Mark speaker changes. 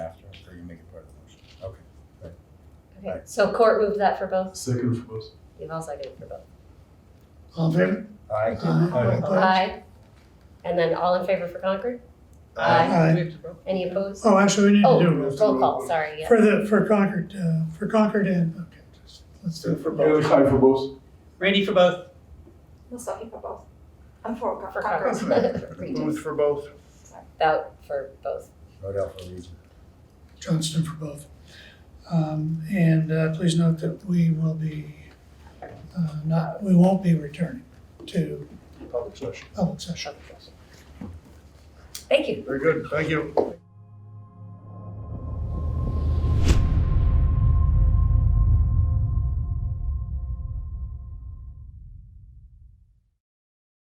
Speaker 1: Okay, so court moved that for both,
Speaker 2: Second for both.
Speaker 1: you've all seconded for both.
Speaker 3: All in favor?
Speaker 4: Aye.
Speaker 3: Aye. Opposed?
Speaker 1: Aye. And then all in favor for Concord?
Speaker 4: Aye.
Speaker 3: Aye.
Speaker 1: Any opposed?
Speaker 3: Oh, actually, we need to
Speaker 1: Oh,
Speaker 3: do,
Speaker 1: roll call, sorry, yeah.
Speaker 3: for the, for Concord, uh, for Concord and, okay, just, let's do it for
Speaker 2: Yeah,
Speaker 3: both.
Speaker 2: tie for both.
Speaker 5: Randy for both.
Speaker 6: Masaki for both. I'm for Con-
Speaker 1: For
Speaker 6: Concord.
Speaker 1: Concord. Regis.
Speaker 5: for both.
Speaker 1: Vote for both.
Speaker 4: Rodell for Reason.
Speaker 3: Johnston for both. Um, and, uh, please note that we will be, uh, not, we won't be returning to
Speaker 2: Public session.
Speaker 3: public session.
Speaker 1: Thank you.
Speaker 5: Very good, thank you.